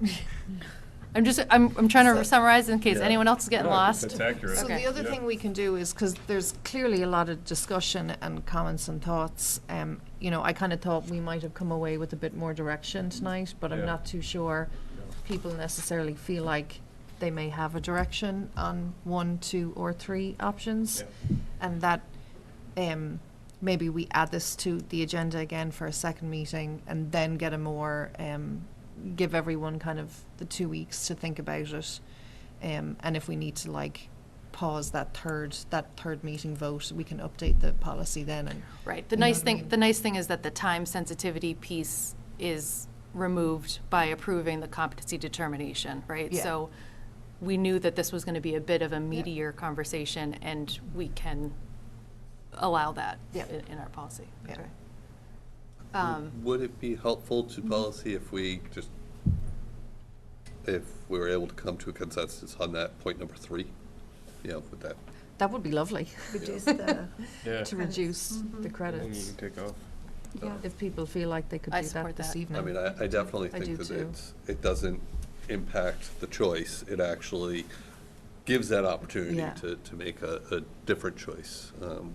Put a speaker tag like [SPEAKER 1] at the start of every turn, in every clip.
[SPEAKER 1] I'm just, I'm, I'm trying
[SPEAKER 2] So-
[SPEAKER 1] to summarize in case
[SPEAKER 3] Yeah.
[SPEAKER 1] anyone else is getting
[SPEAKER 3] No, I think
[SPEAKER 1] lost.
[SPEAKER 3] That's accurate.
[SPEAKER 2] So
[SPEAKER 1] Okay.
[SPEAKER 2] the other
[SPEAKER 3] Yeah.
[SPEAKER 2] thing we can do is, because there's clearly a lot of discussion and comments and thoughts, um, you know, I kind of thought we might have come away with a bit more direction tonight, but I'm
[SPEAKER 3] Yeah.
[SPEAKER 2] not too sure people necessarily feel like they may have a direction on one, two, or three options. And that, um, maybe we add this to the agenda again for a second meeting and then get a more, um, give everyone kind of the two weeks to think about it. Um, and if we need to like pause that third, that third meeting vote, we can update the policy then and.
[SPEAKER 1] Right, the
[SPEAKER 2] You know
[SPEAKER 1] nice
[SPEAKER 2] what I
[SPEAKER 1] thing,
[SPEAKER 2] mean?
[SPEAKER 1] the nice thing is that the time sensitivity piece is removed by approving the competency determination, right?
[SPEAKER 2] Yeah.
[SPEAKER 1] So we knew that this was gonna be a bit of a meatier conversation, and we can allow that
[SPEAKER 2] Yeah.
[SPEAKER 1] in in our policy. That's
[SPEAKER 2] Yeah.
[SPEAKER 1] right. Um,
[SPEAKER 4] Would it be helpful to policy if we just, if we were able to come to a consensus on that point number three? Yeah, with that,
[SPEAKER 2] That would be lovely.
[SPEAKER 5] Reduce the,
[SPEAKER 3] Yeah.
[SPEAKER 2] To reduce the
[SPEAKER 3] And you
[SPEAKER 2] credits.
[SPEAKER 3] can take off.
[SPEAKER 5] yeah.
[SPEAKER 4] Mm-hmm.
[SPEAKER 2] If people feel like they could
[SPEAKER 1] I
[SPEAKER 2] do
[SPEAKER 1] support
[SPEAKER 2] that this
[SPEAKER 1] that.
[SPEAKER 2] evening.
[SPEAKER 4] I mean, I, I definitely
[SPEAKER 2] I do
[SPEAKER 4] think that
[SPEAKER 2] too.
[SPEAKER 4] it's, it doesn't impact the choice. It actually gives that opportunity
[SPEAKER 2] Yeah.
[SPEAKER 4] to, to make a, a different choice, um,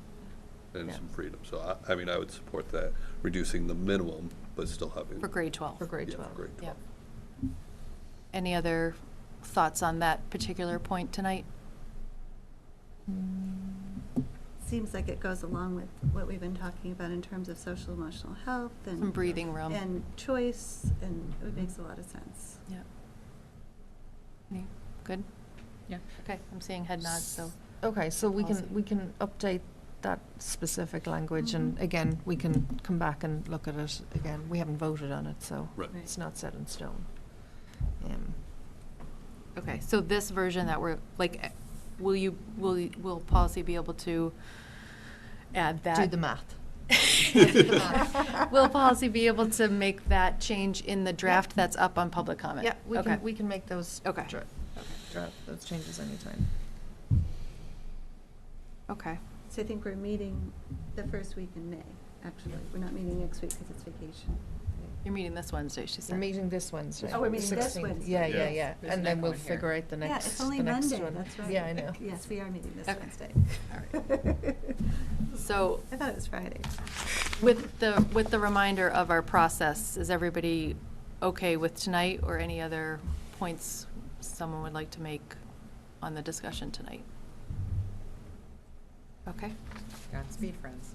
[SPEAKER 4] and
[SPEAKER 2] Yeah.
[SPEAKER 4] some freedom. So I, I mean, I would support that, reducing the minimum, but still having.
[SPEAKER 1] For grade 12.
[SPEAKER 2] For grade
[SPEAKER 4] Yeah, for
[SPEAKER 2] 12.
[SPEAKER 4] grade
[SPEAKER 1] Yep.
[SPEAKER 4] 12.
[SPEAKER 1] Any other thoughts on that particular point tonight?
[SPEAKER 5] Seems like it goes along with what we've been talking about in terms of social emotional health and.
[SPEAKER 1] Some breathing room.
[SPEAKER 5] And choice, and it makes a lot of sense.
[SPEAKER 1] Yeah. Any- Good?
[SPEAKER 6] Yeah.
[SPEAKER 1] Okay, I'm seeing head nods, so.
[SPEAKER 2] Okay, so we
[SPEAKER 1] Policy.
[SPEAKER 2] can, we can update that specific language and
[SPEAKER 5] Mhm.
[SPEAKER 2] again, we can come back and look at it again. We haven't voted on it, so
[SPEAKER 4] Right.
[SPEAKER 5] Right.
[SPEAKER 2] it's not set in stone. Um,
[SPEAKER 1] Okay, so this version that we're, like, eh, will you, will, you- will policy be able to add that?
[SPEAKER 2] Do the math.
[SPEAKER 1] Will policy be able to make that change in the draft that's up on public comment?
[SPEAKER 2] Yeah, we
[SPEAKER 1] Okay.
[SPEAKER 2] can, we can make those.
[SPEAKER 1] Okay.
[SPEAKER 2] dra- dra- Those changes anytime.
[SPEAKER 1] Okay,
[SPEAKER 5] So I think we're meeting the first week in May, actually. We're not meeting next week because it's vacation.
[SPEAKER 1] you're meeting this Wednesday, she
[SPEAKER 2] We're
[SPEAKER 1] said.
[SPEAKER 2] meeting this Wednesday.
[SPEAKER 5] Oh, we're meeting this
[SPEAKER 2] 16th.
[SPEAKER 5] Wednesday.
[SPEAKER 2] Yeah, yeah,
[SPEAKER 3] Yeah.
[SPEAKER 2] yeah.
[SPEAKER 6] There's
[SPEAKER 2] And
[SPEAKER 6] no
[SPEAKER 2] then we'll
[SPEAKER 6] one here.
[SPEAKER 2] figure out the
[SPEAKER 5] Yeah,
[SPEAKER 2] next,
[SPEAKER 5] it's
[SPEAKER 2] the
[SPEAKER 5] only
[SPEAKER 2] next
[SPEAKER 5] Monday,
[SPEAKER 2] one.
[SPEAKER 5] that's right.
[SPEAKER 2] Yeah, I know.
[SPEAKER 5] Yes, we are meeting this
[SPEAKER 1] Okay.
[SPEAKER 5] Wednesday.
[SPEAKER 1] So
[SPEAKER 5] I thought it was Friday.
[SPEAKER 1] with the, with the reminder of our process, is everybody okay with tonight or any other points someone would like to make on the discussion tonight? Okay?
[SPEAKER 6] Godspeed, friends.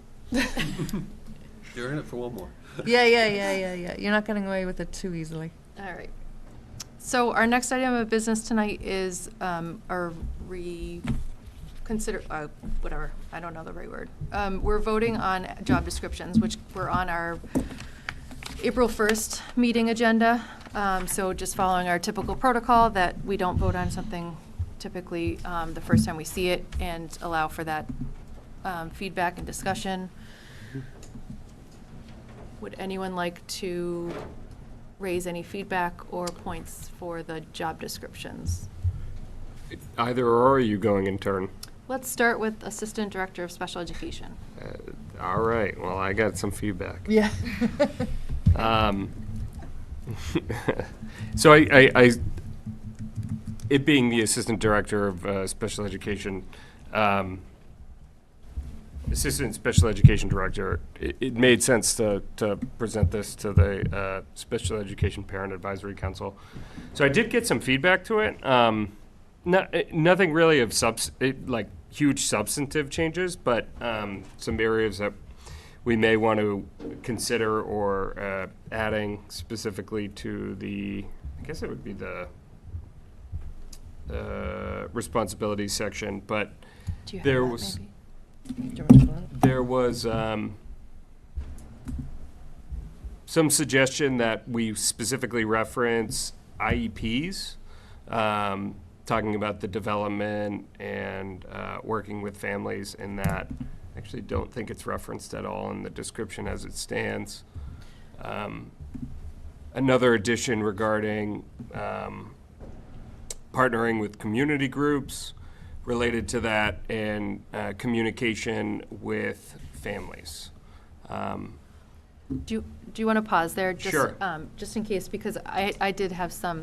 [SPEAKER 4] You're in it for one more.
[SPEAKER 2] Yeah, yeah, yeah, yeah, yeah. You're not getting away with it too easily.
[SPEAKER 1] All right. So our next item of business tonight is um, our reconsider, uh, whatever, I don't know the right word. Um, We're voting on job descriptions, which were on our April 1st meeting agenda. Um, So just following our typical protocol that we don't vote on something typically um, the first time we see it and allow for that um, feedback and discussion. Would anyone like to raise any feedback or points for the job descriptions?
[SPEAKER 7] Either or are you going in turn?
[SPEAKER 1] Let's start with Assistant Director of Special Education.
[SPEAKER 7] Uh, All right, well, I got some feedback.
[SPEAKER 2] Yeah.
[SPEAKER 7] Um, so I, I, I, it being the assistant director of uh, special education, um, assistant special education director, it, it made sense to, to present this to the uh, special education parent advisory council. So I did get some feedback to it. Um, no, it- nothing really of subs, it, like huge substantive changes, but um, some areas that we may want to consider or uh, adding specifically to the, I guess it would be the uh, responsibilities section, but
[SPEAKER 1] Do you have
[SPEAKER 7] There
[SPEAKER 1] that,
[SPEAKER 7] was-
[SPEAKER 1] maybe?
[SPEAKER 7] there was um, some suggestion that we specifically reference IEPs, um, talking about the development and uh, working with families in that. Actually, don't think it's referenced at all in the description as it stands. Um, another addition regarding um, partnering with community groups related to that and uh, communication with families. Um,
[SPEAKER 1] Do you, do you want to pause there? just,
[SPEAKER 7] Sure.
[SPEAKER 1] um, Just in case, because I, I did have some